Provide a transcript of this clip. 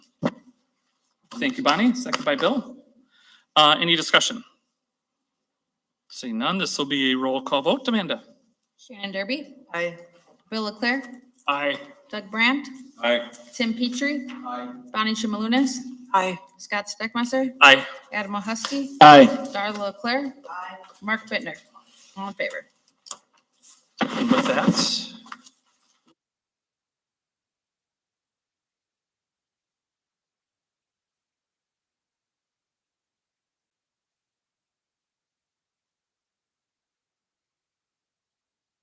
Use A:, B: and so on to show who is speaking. A: Thank you, Bonnie. Second by Bill. Uh, any discussion? Seeing none, this will be a roll call vote. Amanda?
B: Shannon Derby,
C: Aye.
B: Bill Leclerc,
A: Aye.
B: Doug Brandt,
D: Aye.
B: Tim Petrie,
D: Aye.
B: Bonnie Shimalunas,
C: Aye.
B: Scott Steckmeister,
A: Aye.
B: Adam Husky,
D: Aye.
B: Darla Leclerc, Mark Bittner. All in favor.
A: And with that,